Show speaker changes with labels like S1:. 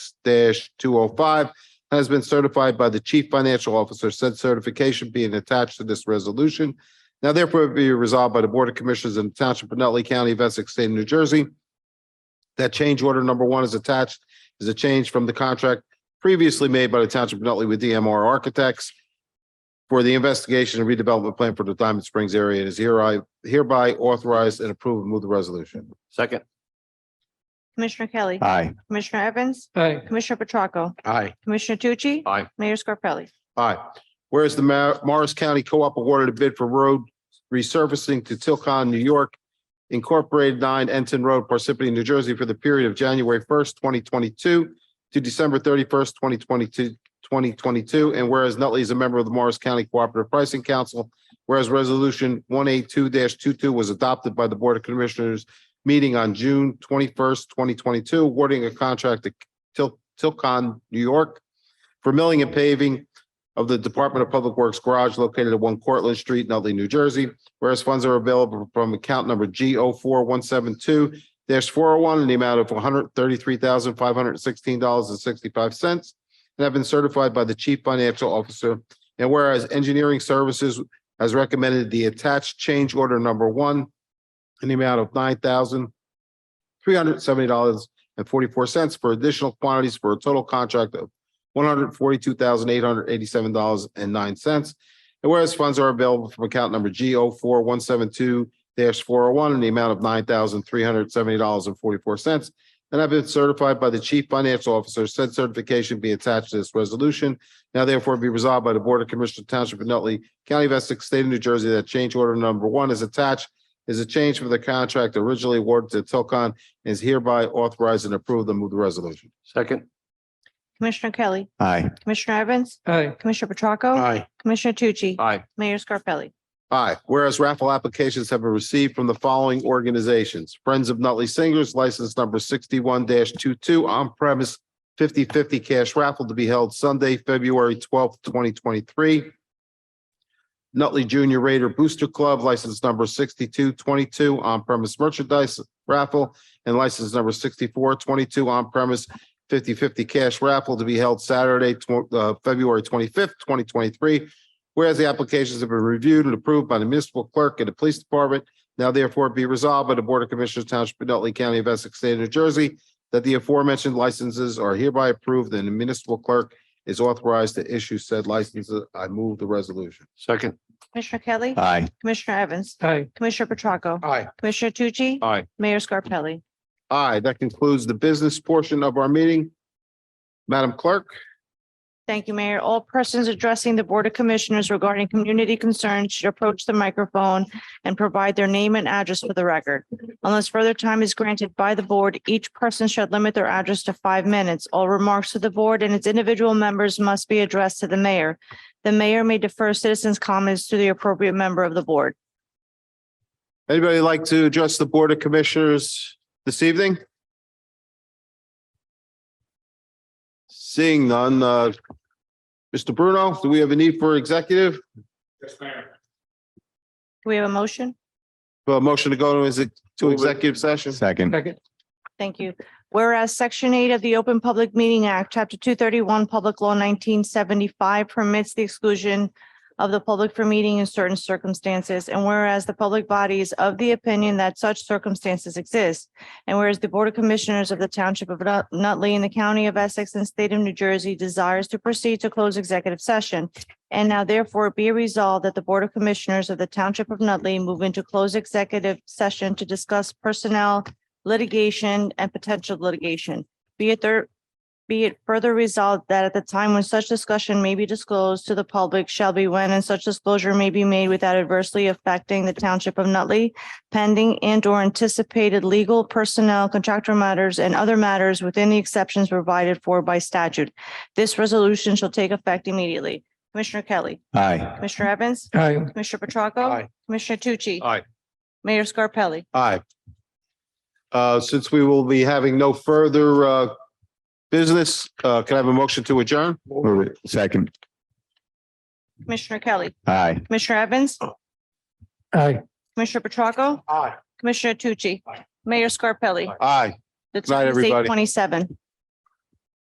S1: two oh five has been certified by the chief financial officer, said certification being attached to this resolution. Now therefore be resolved by the Board of Commissioners in the Township of Nutley County of Essex State of New Jersey that change order number one is attached is a change from the contract previously made by the Township of Nutley with DMR Architects for the investigation and redevelopment plan for the Diamond Springs area and is hereby hereby authorized and approved. Move the resolution.
S2: Second.
S3: Commissioner Kelly.
S2: Aye.
S3: Commissioner Evans.
S2: Aye.
S3: Commissioner Petracca.
S2: Aye.
S3: Commissioner Tucci.
S2: Aye.
S3: Mayor Scarpelli.
S1: Aye. Whereas the Ma- Morris County Co-op awarded a bid for road resurfacing to Tilcon, New York, Incorporated nine Enton Road, Parsippany, New Jersey, for the period of January first, twenty twenty-two to December thirty-first, twenty twenty-two, twenty twenty-two, and whereas Nutley is a member of the Morris County Cooperative Pricing Council, whereas Resolution one eight two 22 was adopted by the Board of Commissioners meeting on June twenty-first, twenty twenty-two, awarding a contract to Til- Tilcon, New York, for milling and paving of the Department of Public Works Garage located at one Cortlandt Street, Nutley, New Jersey. Whereas funds are available from account number G O four one seven two four oh one in the amount of one hundred thirty-three thousand five hundred sixteen dollars and sixty-five cents and have been certified by the Chief Financial Officer. And whereas Engineering Services has recommended the attached change order number one in the amount of nine thousand three hundred seventy dollars and forty-four cents for additional quantities for a total contract of one hundred forty-two thousand eight hundred eighty-seven dollars and nine cents. And whereas funds are available from account number G O four one seven two four oh one in the amount of nine thousand three hundred seventy dollars and forty-four cents. And I've been certified by the chief financial officer, said certification be attached to this resolution. Now therefore be resolved by the Board of Commissioners Township of Nutley County of Essex State of New Jersey that change order number one is attached is a change from the contract originally awarded to Tilcon and is hereby authorized and approved. I move the resolution.
S2: Second.
S3: Commissioner Kelly.
S2: Aye.
S3: Commissioner Evans.
S2: Aye.
S3: Commissioner Petracca.
S2: Aye.
S3: Commissioner Tucci.
S2: Aye.
S3: Mayor Scarpelli.
S1: Aye. Whereas raffle applications have been received from the following organizations. Friends of Nutley Singers, license number sixty-one 22 on-premise 50-50 cash raffle to be held Sunday, February twelfth, twenty twenty-three. Nutley Junior Raider Booster Club, license number sixty-two twenty-two on-premise merchandise raffle and license number sixty-four twenty-two on-premise 50-50 cash raffle to be held Saturday, tw- uh, February twenty-fifth, twenty twenty-three Whereas the applications have been reviewed and approved by the municipal clerk and the police department, now therefore be resolved by the Board of Commissioners Township of Nutley County of Essex State of New Jersey that the aforementioned licenses are hereby approved and the municipal clerk is authorized to issue said licenses. I move the resolution.
S2: Second.
S3: Commissioner Kelly.
S2: Aye.
S3: Commissioner Evans.
S2: Aye.
S3: Commissioner Petracca.
S2: Aye.
S3: Commissioner Tucci.
S2: Aye.
S3: Mayor Scarpelli.
S1: Aye, that concludes the business portion of our meeting. Madam Clerk?
S3: Thank you, Mayor. All persons addressing the Board of Commissioners regarding community concerns should approach the microphone and provide their name and address for the record. Unless further time is granted by the board, each person should limit their address to five minutes. All remarks to the board and its individual members must be addressed to the mayor. The mayor may defer citizens' comments to the appropriate member of the board.
S1: Anybody like to address the Board of Commissioners this evening? Seeing none, uh, Mr. Bruno, do we have a need for executive?
S3: Do we have a motion?
S1: A motion to go to, is it to
S2: Move it.
S1: executive session?
S2: Second. Second.
S3: Thank you. Whereas Section 8 of the Open Public Meeting Act, Chapter 231, Public Law 1975 permits the exclusion of the public from meeting in certain circumstances, and whereas the public body is of the opinion that such circumstances exist, and whereas the Board of Commissioners of the Township of Nut- Nutley in the County of Essex and State of New Jersey desires to proceed to close executive session, and now therefore be resolved that the Board of Commissioners of the Township of Nutley move into closed executive session to discuss personnel, litigation and potential litigation. Be it there, be it further resolved that at the time when such discussion may be disclosed to the public shall be when and such disclosure may be made without adversely affecting the township of Nutley pending and or anticipated legal personnel, contractor matters and other matters within the exceptions provided for by statute. This resolution shall take effect immediately. Commissioner Kelly,
S2: Aye.
S3: Commissioner Evans,
S2: Aye.
S3: Commissioner Petracca.
S2: Aye.
S3: Commissioner Tucci.
S2: Aye.
S3: Mayor Scarpelli.
S1: Aye. Uh, since we will be having no further, uh, business, uh, can I have a motion to adjourn?
S2: Move it. Second.
S3: Commissioner Kelly,
S2: Aye.
S3: Commissioner Evans,
S2: Aye.
S3: Commissioner Petracca.
S2: Aye.
S3: Commissioner Tucci.
S2: Aye.
S3: Mayor Scarpelli.
S1: Aye.
S3: The
S1: Good night,
S3: time is
S1: everybody.
S3: 8:27.